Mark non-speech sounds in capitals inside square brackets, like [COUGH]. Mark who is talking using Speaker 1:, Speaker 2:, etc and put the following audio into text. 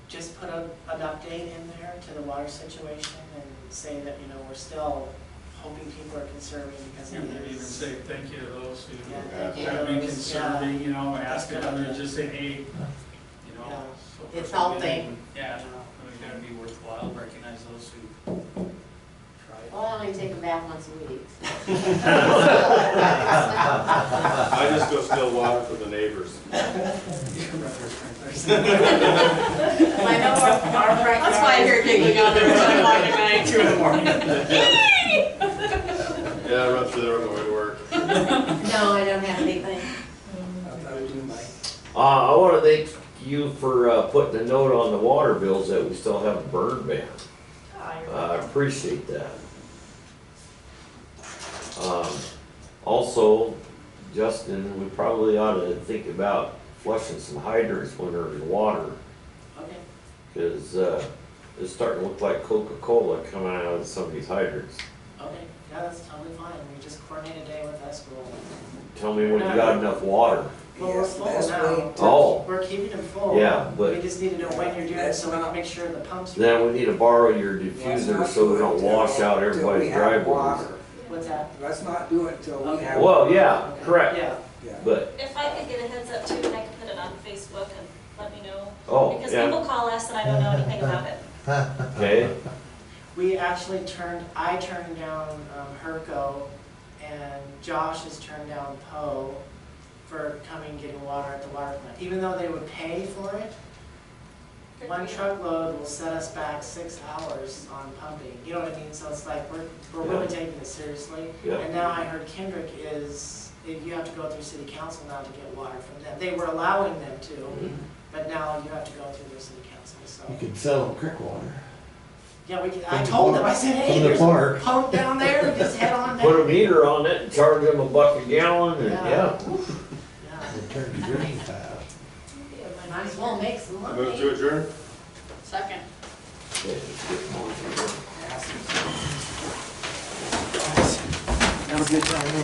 Speaker 1: just put a, an update in there to the water situation and say that, you know, we're still hoping people are conserving because
Speaker 2: You
Speaker 1: of
Speaker 2: would even
Speaker 1: this.
Speaker 2: say thank you to those
Speaker 1: Yeah,
Speaker 2: who
Speaker 1: thank you,
Speaker 2: have been
Speaker 1: those, yeah.
Speaker 2: conserving, you know, ask
Speaker 1: That's
Speaker 2: others,
Speaker 1: good.
Speaker 2: just say, hey, you know.
Speaker 1: Yeah.
Speaker 2: so
Speaker 3: It's
Speaker 2: forth and
Speaker 3: helping.
Speaker 2: in. Yeah,
Speaker 1: You know.
Speaker 2: I mean, that'd be worthwhile, recognize those who
Speaker 3: Well,
Speaker 2: [LAUGHS]
Speaker 3: I
Speaker 2: tried.
Speaker 3: only take a bath once a
Speaker 1: [LAUGHS]
Speaker 3: week.
Speaker 4: I just go steal water for the neighbors.
Speaker 1: [LAUGHS]
Speaker 2: [LAUGHS]
Speaker 3: I know our, our front
Speaker 5: That's why I hear giggling out there at 10 o'clock at night.
Speaker 2: Two in the morning.
Speaker 4: Yeah, I run through there on the way to work.
Speaker 3: No, I don't have anything.
Speaker 6: Uh, I wanna thank you for, uh, putting a note on the water bills that we still have a burn ban. Uh,
Speaker 5: Ah, you're
Speaker 6: I
Speaker 5: welcome.
Speaker 6: appreciate that. Um, also, Justin, we probably ought to think about flushing some hydrants when they're in water,
Speaker 1: Okay,
Speaker 6: cause, uh, it's starting to look like Coca-Cola coming out of some of these hydrants.
Speaker 1: okay, yeah, that's totally fine, we just coordinate a day with us, we'll,
Speaker 6: Tell me when you got enough water.
Speaker 1: well, we're full
Speaker 7: last
Speaker 1: now.
Speaker 6: Oh.
Speaker 1: We're keeping them full.
Speaker 6: Yeah, but-
Speaker 1: We just need to know when you're doing it, so we can make sure the pumps.
Speaker 6: Then we need to borrow your
Speaker 7: Let's
Speaker 6: diffuser
Speaker 7: not
Speaker 6: so we
Speaker 7: do it
Speaker 6: don't
Speaker 7: till-
Speaker 6: wash out
Speaker 7: till we
Speaker 6: everybody's
Speaker 7: have
Speaker 6: driveways.
Speaker 7: water.
Speaker 1: What's that?
Speaker 7: Let's not do it till we
Speaker 1: Okay.
Speaker 7: have.
Speaker 6: Well, yeah,
Speaker 1: Okay.
Speaker 6: correct,
Speaker 1: Yeah,
Speaker 7: yeah.
Speaker 6: but,
Speaker 8: If I could get a heads up too, and I could put it on Facebook and let me know.
Speaker 6: oh,
Speaker 8: Because
Speaker 6: yeah,
Speaker 8: people call us and I don't know anything about it.
Speaker 6: okay,
Speaker 1: we actually turned, I turned down, um, Herco, and Josh has turned down Poe for coming getting water at the water plant, even though they would pay for it. One truckload will set us back six hours on pumping, you know what I mean? So it's like, we're, we're really taking this seriously.
Speaker 6: Yeah.
Speaker 1: And now I heard Kendrick is, if you have to go through city council now to get water from them. They were allowing them
Speaker 6: Mm-hmm.
Speaker 1: to, but now you have to go through the city council,
Speaker 9: You
Speaker 1: so.
Speaker 9: could sell them creek water
Speaker 1: Yeah, we, could- I
Speaker 9: From the
Speaker 1: told them,
Speaker 9: park-
Speaker 1: I said, hey,
Speaker 9: from the
Speaker 1: there's a
Speaker 9: park."
Speaker 1: pump down there, just head
Speaker 9: [LAUGHS]
Speaker 1: on down.
Speaker 6: put a meter on it and charge them a buck a gallon and,
Speaker 1: Yeah.
Speaker 6: yeah.
Speaker 1: Yeah.
Speaker 9: and turn to green fast.
Speaker 3: Might as well make some money.
Speaker 4: Move to adjourn?
Speaker 5: Second.
Speaker 6: Yeah, it's good morning.
Speaker 7: That was a good time.